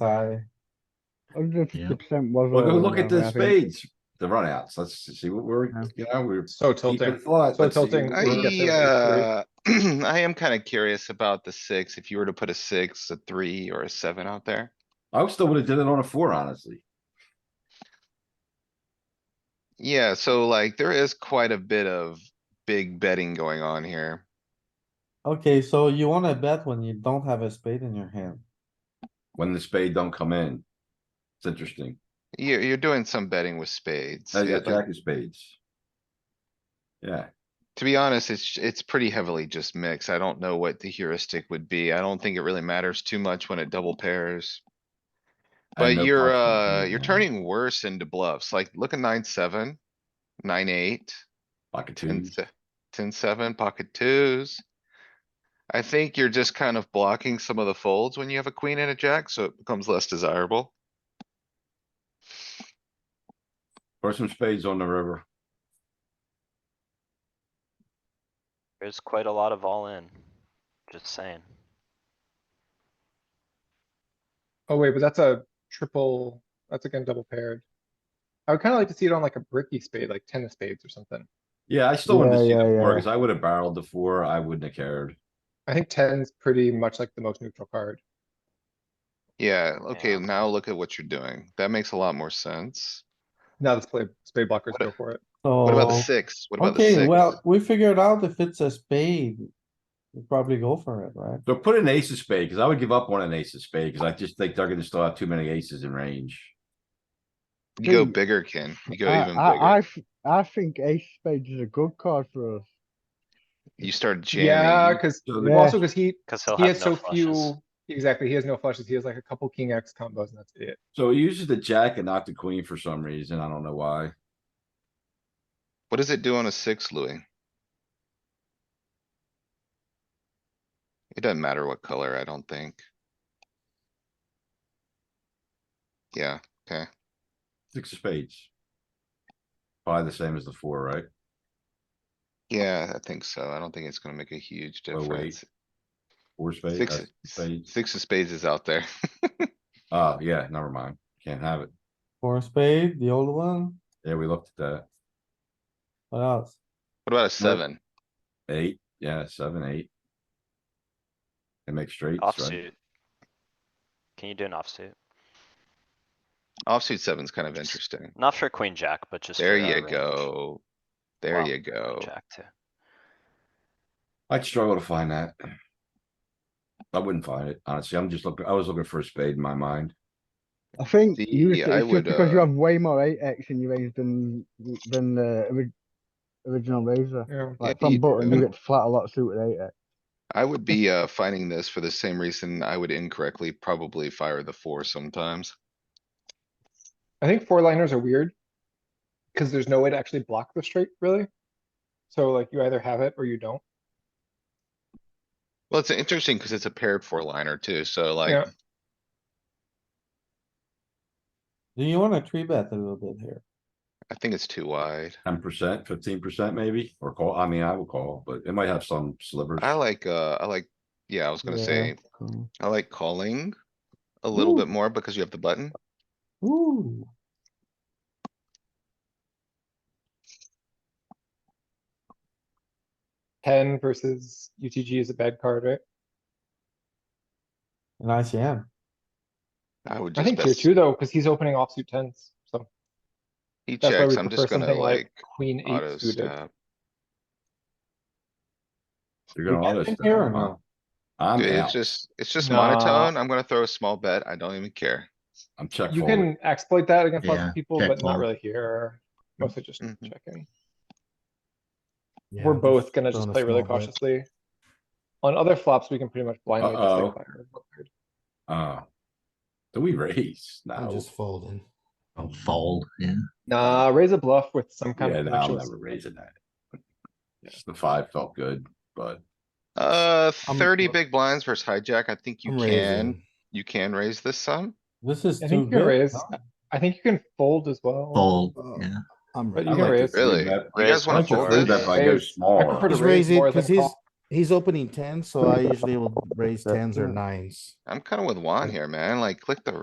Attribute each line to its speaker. Speaker 1: side.
Speaker 2: Hundred
Speaker 3: Yeah.
Speaker 2: fifty percent was.
Speaker 4: Well, go
Speaker 2: all in
Speaker 4: look at
Speaker 2: there,
Speaker 4: the
Speaker 2: I think.
Speaker 4: spades, the runouts. Let's see what we're,
Speaker 2: Yeah.
Speaker 4: you know, we're.
Speaker 1: So
Speaker 4: keep it
Speaker 1: tilting.
Speaker 4: flat.
Speaker 1: So
Speaker 4: Let's see
Speaker 1: tilting.
Speaker 4: what we're-
Speaker 1: get
Speaker 5: I,
Speaker 1: there
Speaker 5: uh, I am kinda curious about the six. If you were to put a six, a three, or a seven out there.
Speaker 4: I still would have did it on a four, honestly.
Speaker 5: Yeah, so like there is quite a bit of big betting going on here.
Speaker 1: Okay, so you wanna bet when you don't have a spade in your hand.
Speaker 4: When the spade don't come in. It's interesting.
Speaker 5: You're, you're doing some betting with spades.
Speaker 4: Now you
Speaker 5: It-
Speaker 4: got jack of spades. Yeah,
Speaker 5: To be honest, it's, it's pretty heavily just mixed. I don't know what the heuristic would be. I don't think it really matters too much when it double pairs.
Speaker 4: I have
Speaker 5: But
Speaker 4: no
Speaker 5: you're,
Speaker 4: confidence in
Speaker 5: uh,
Speaker 4: it,
Speaker 5: you're
Speaker 4: man.
Speaker 5: turning worse into bluffs. Like, look at nine, seven, nine, eight.
Speaker 4: pocket
Speaker 5: Ten,
Speaker 4: twos.
Speaker 5: se- ten, seven, pocket twos. I think you're just kind of blocking some of the folds when you have a queen and a jack, so it becomes less desirable.
Speaker 4: Or some spades on the river.
Speaker 6: There's quite a lot of all in. Just saying.
Speaker 7: Oh wait, but that's a triple, that's again double paired. I would kinda like to see it on like a bricky spade, like ten of spades or something.
Speaker 4: Yeah, I still wanted to
Speaker 2: Yeah,
Speaker 4: see the
Speaker 2: yeah,
Speaker 4: four,
Speaker 2: yeah.
Speaker 4: cause I would have barreled the four. I wouldn't have cared.
Speaker 7: I think ten's pretty much like the most neutral card.
Speaker 5: Yeah, okay,
Speaker 6: Yeah.
Speaker 5: now look at what you're doing. That makes a lot more sense.
Speaker 7: Now this play, spade blockers
Speaker 5: What
Speaker 7: go
Speaker 5: a-
Speaker 7: for it.
Speaker 1: So.
Speaker 5: What about the six? What about the
Speaker 1: Oh, Okay, well,
Speaker 5: six?
Speaker 1: we figured out if it's a spade, we probably go for it, right?
Speaker 4: So put an ace of spade, cause I would give up on an ace of spade, cause I just think they're gonna still have too many aces in range.
Speaker 5: You go
Speaker 2: dude,
Speaker 5: bigger, Ken. You go
Speaker 2: I,
Speaker 5: even
Speaker 2: I, I,
Speaker 5: bigger.
Speaker 2: th- I think ace spades is a good card for us.
Speaker 5: You start
Speaker 7: Yeah,
Speaker 5: jamming.
Speaker 7: cause,
Speaker 4: So
Speaker 7: well,
Speaker 4: the-
Speaker 7: also cause he,
Speaker 6: Cause he'll
Speaker 7: he
Speaker 6: have
Speaker 7: has
Speaker 6: no
Speaker 7: so
Speaker 6: flushes.
Speaker 7: few, exactly, he has no flushes, he has like a couple king X combos and that's it.
Speaker 4: So he uses the jack and not the queen for some reason. I don't know why.
Speaker 5: What does it do on a six, Louis? It doesn't matter what color, I don't think. Yeah,
Speaker 4: Six of spades. Probably the same as the four, right?
Speaker 5: yeah, I think so. I don't think it's gonna make a huge
Speaker 4: Oh, wait.
Speaker 5: difference.
Speaker 4: Four spades.
Speaker 5: Six,
Speaker 4: uh, spades.
Speaker 5: six of spades is out there.
Speaker 4: Oh, yeah, never mind. Can't have it.
Speaker 1: Four spade, the old one,
Speaker 4: Yeah, we looked at
Speaker 1: what else?
Speaker 5: What about a seven?
Speaker 4: that. Eight, yeah, seven, eight. And make straights, right?
Speaker 6: Offsuit. Can you do an offsuit?
Speaker 5: Offsuit seven's kind of interesting.
Speaker 6: Not for queen jack, but just.
Speaker 5: There
Speaker 6: for, uh,
Speaker 5: you
Speaker 6: range.
Speaker 5: go. There
Speaker 6: Wow.
Speaker 5: you go.
Speaker 6: Jack too.
Speaker 4: I'd struggle to find that. I wouldn't find it, honestly. I'm just looking, I was looking for a spade in my mind.
Speaker 2: I think
Speaker 5: See,
Speaker 2: you,
Speaker 5: I
Speaker 2: it's
Speaker 5: would,
Speaker 2: just because you
Speaker 5: uh,
Speaker 2: have way more eight X in your range than, than the ori- original razor.
Speaker 7: Yeah.
Speaker 2: Like
Speaker 5: Yeah, you
Speaker 2: from button, you
Speaker 5: do.
Speaker 2: get flat a lot suited eight X.
Speaker 5: I would be, uh, finding this for the same reason I would incorrectly probably fire the four sometimes.
Speaker 7: I think four liners are weird. Cause there's no way to actually block the straight, really. So like you either have it or you don't.
Speaker 5: Well, it's interesting because it's a paired four liner too, so like,
Speaker 7: Yeah.
Speaker 1: Do you wanna three bet a little bit here?
Speaker 5: I think it's too wide.
Speaker 4: Ten percent, fifteen percent maybe, or call, I mean, I would call, but it might have some slivers.
Speaker 5: I like, uh, I like, yeah, I was gonna
Speaker 1: Yeah.
Speaker 5: say,
Speaker 1: Cool.
Speaker 7: Mm-hmm.
Speaker 5: I like calling a little
Speaker 1: Ooh.
Speaker 5: bit more because you have the button.
Speaker 1: Ooh,
Speaker 7: Ten versus UTG is a bad card, right?
Speaker 1: an ICM,
Speaker 5: I would
Speaker 7: I
Speaker 5: just
Speaker 7: think tier
Speaker 5: best,
Speaker 7: two though, cause he's opening offsuit tens, so.
Speaker 5: he
Speaker 7: That's why we
Speaker 5: checks, I'm
Speaker 7: prefer
Speaker 5: just gonna
Speaker 7: something like
Speaker 5: like
Speaker 7: queen
Speaker 5: auto
Speaker 7: eight suited.
Speaker 5: snap.
Speaker 4: You're gonna
Speaker 1: You
Speaker 4: auto.
Speaker 1: can
Speaker 4: stack,
Speaker 1: hear him
Speaker 4: huh?
Speaker 1: now.
Speaker 4: I'm
Speaker 5: Dude, It's
Speaker 4: out.
Speaker 5: just, it's just
Speaker 7: Nah.
Speaker 5: monotone. I'm gonna throw a small bet. I don't even care.
Speaker 4: I'm check
Speaker 7: You
Speaker 4: folding.
Speaker 7: can exploit that against lots
Speaker 3: Yeah,
Speaker 7: of people,
Speaker 3: check
Speaker 7: but not
Speaker 3: fold.
Speaker 7: really here. Mostly just
Speaker 5: Mhm.
Speaker 7: checking.
Speaker 3: Yeah,
Speaker 7: We're both gonna just
Speaker 1: throwing a
Speaker 7: play really
Speaker 1: small bet.
Speaker 7: cautiously. On other flops, we can pretty much blindly just
Speaker 4: Uh-oh.
Speaker 7: like fire.
Speaker 4: Uh. Do we raise?
Speaker 8: I'm
Speaker 4: No.
Speaker 8: just folding.
Speaker 3: I'll fold, yeah.
Speaker 7: Nah, raise a bluff with some kind
Speaker 4: Yeah,
Speaker 7: of.
Speaker 4: no, I'm
Speaker 7: connections.
Speaker 4: never raising that. Just The five felt good, but
Speaker 5: Uh,
Speaker 2: I'm-
Speaker 5: thirty big blinds versus hijack. I think you
Speaker 8: I'm
Speaker 5: can,
Speaker 8: raising.
Speaker 5: you can raise this sum.
Speaker 1: this is
Speaker 7: I
Speaker 1: too
Speaker 7: think you
Speaker 1: good.
Speaker 7: raise, I think you can fold as well.
Speaker 3: Fold,
Speaker 8: Oh.
Speaker 3: yeah.
Speaker 8: I'm
Speaker 7: But
Speaker 4: I like
Speaker 7: you can
Speaker 8: raising.
Speaker 4: to
Speaker 7: raise.
Speaker 4: three
Speaker 5: Really?
Speaker 4: bet-
Speaker 5: You
Speaker 4: I
Speaker 5: guys wanna
Speaker 4: like to
Speaker 5: fold
Speaker 4: three
Speaker 5: this?
Speaker 4: bet by go
Speaker 7: Raise. I
Speaker 4: small.
Speaker 7: prefer to
Speaker 8: Just
Speaker 7: raise
Speaker 8: raise it
Speaker 7: more than
Speaker 8: because he's
Speaker 7: call.
Speaker 8: he's opening tens, so I usually will raise tens or nines.
Speaker 5: I'm kinda with Juan here, man. Like, click the